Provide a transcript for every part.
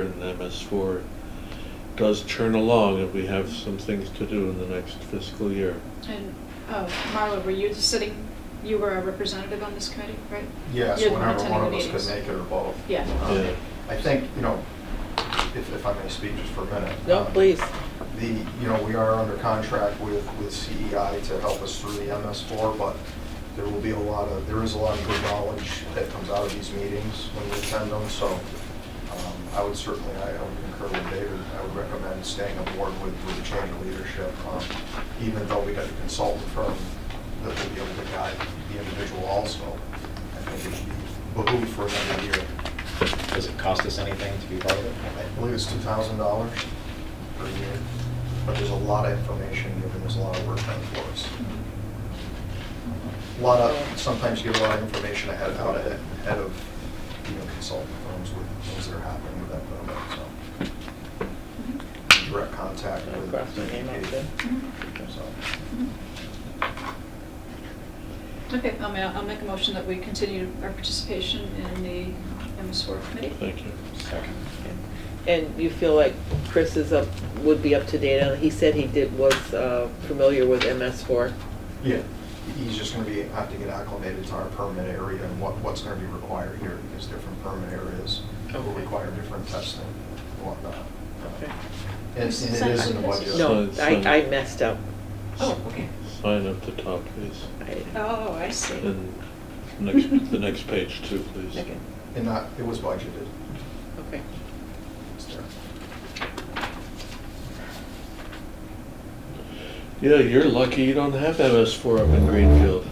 and MS four does churn along, and we have some things to do in the next fiscal year. And, oh, Marla, were you just sitting, you were a representative on this committee, right? Yes, You're the whenever one of us attending the could make it or both. Yeah. Um, Yeah. I think, you know, if, if I may speak just for a minute. No, um, please. The, you know, we are under contract with, with CEI to help us through the MS4, but there will be a lot of, there is a lot of good knowledge that comes out of these meetings when you attend them, so um, I would certainly, I I would concur with David, I would recommend staying aboard with, with the change of leadership, um, even though we got a consultant firm that will be able to guide the individual also. I think it should be behooved for another year. Does it cost us anything to be part of it? I believe it's two thousand dollars per year, but there's a lot of information given, there's a lot of work done for us. Mm-hmm. A lot of, sometimes you get a lot of information ahead, out ahead, ahead of, you know, consultant firms with things that are happening with that program, Mhm. so. Direct contact Can I with. cross my name out there? Mhm. So, Mm-hmm. Okay, I'll ma- I'll make a motion that we continue our participation in the MS4 committee. Thank you. Second. And you feel like Chris is up, would be up to date on, he said he did, was uh, familiar with MS4. Yeah, he's just gonna be, have to get acclimated to our permit area and what, what's gonna be required here, because different permit areas will Okay. require different testing and whatnot. Okay. And it's- and it is in the budget. No, So- I, so- I messed up. Oh, okay. Sign up the top, please, I- Oh, I see. and next, the next page too, please. Okay, And that, it was budgeted. okay. It's there. Yeah, you're lucky you don't have MS four up in Greenfield.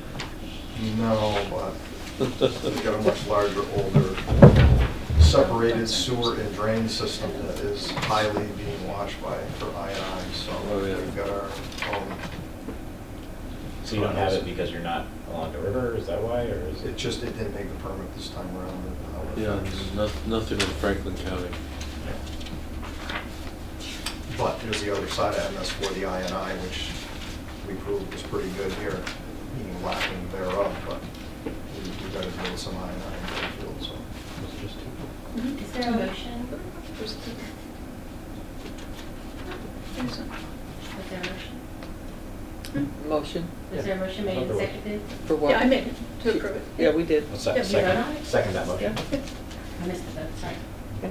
No, but we've got a much larger, older, separated sewer and drain system that is highly being watched by, for INI, so Oh, yeah. we've got our own. So you don't have it because you're not along the river, is that why, or is It it? just, it didn't make the permit this time around. and how it Yeah, affects- no- nothing in Franklin County. But there's the other side of MS for the INI, which we proved was pretty good here, being lacking thereof, but we we gotta build some INI in Greenfield, so. Mhm. Is there a motion? There's a- there's a- Was there a motion? Motion? Was there a motion made Oh, and Another one. seconded? For what? Hmm? Yeah, I made it to approve it. Yeah, we did. Let's Yeah, sec- you vote on Second, it? second that motion. Yeah. I missed the vote, sorry.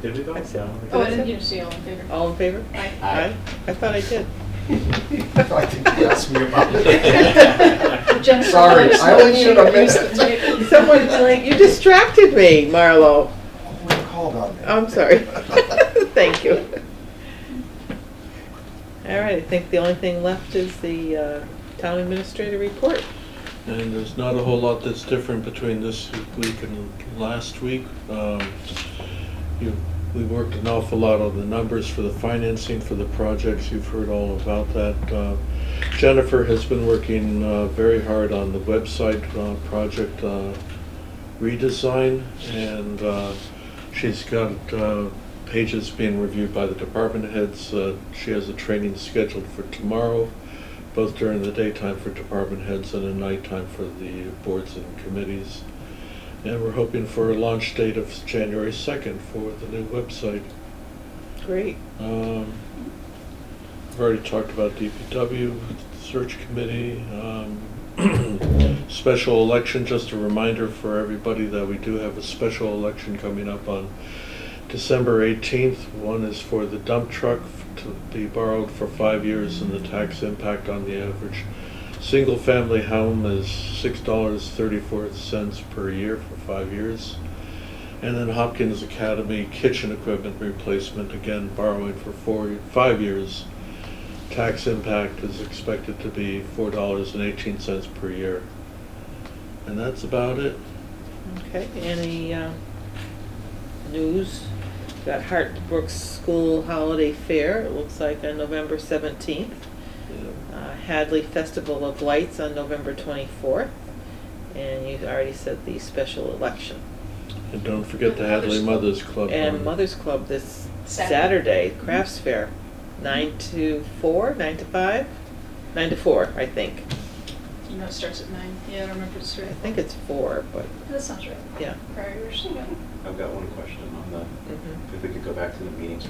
Did we vote? I said- No. Oh, I didn't, you didn't see all in favor? All in favor? Aye. Aye. I thought I did. I think you asked me about But Jen- it. Sorry, I only should have Use missed the table. it. Someone, like, you distracted me, Marlo. Someone called on me. I'm sorry. Thank you. All right, I think the only thing left is the uh, town administrator report. And there's not a whole lot that's different between this week and last week. Um, you- We worked an awful lot on the numbers for the financing for the projects, you've heard all about that. Uh, Jennifer has been working uh, very hard on the website uh, project uh, redesign, and uh, she's got uh, pages being reviewed by the department heads. Uh, She has a training scheduled for tomorrow both during the daytime for department heads and at nighttime for the boards and committees. And we're hoping for a launch date of January 2nd for the new website. Great. Um, I've already talked about DPW, search committee, um, special election, just a reminder for everybody that we do have a special election coming up on December 18th. One is for the dump truck to be borrowed for five years and the tax impact on the average single-family home is $6.34 per year for five years. And then Hopkins Academy kitchen equipment replacement, again borrowing for four, five years. Tax impact is expected to be four dollars and eighteen cents per year. And that's about it. Okay, any uh, news? Got Hartbrook School Holiday Fair, it looks like on November 17th. Yeah. Uh, Hadley Festival of Lights on November 24th. And you already said the special election. And don't forget the Mother's Hadley Mothers Club. Club. And on- Mother's Club this Saturday. Saturday, crafts fair, nine to four, nine to five, nine to four, I think. You know, it starts at nine. Yeah, I don't remember if it's I three. think it's four, but, That sounds right. yeah. Prior years. I've got one question on the, Mhm. mm-hmm. if we could go back to the meetings